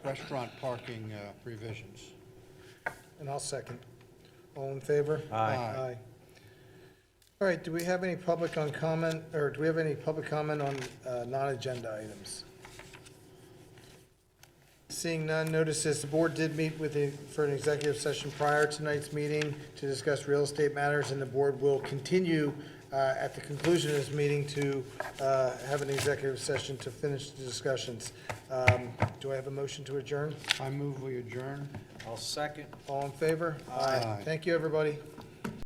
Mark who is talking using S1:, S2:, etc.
S1: restaurant parking uh, provisions.
S2: And I'll second. All in favor?
S3: Aye.
S1: Aye.
S2: All right, do we have any public on comment, or do we have any public comment on uh, non-agenda items? Seeing none, notices, the board did meet with, the- for an executive session prior to tonight's meeting to discuss real estate matters, and the board will continue uh, at the conclusion of this meeting to uh, have an executive session to finish the discussions. Um, Do I have a motion to adjourn?
S1: I move we adjourn.
S3: I'll second.
S2: All in favor?
S1: Aye.
S2: Thank you, everybody.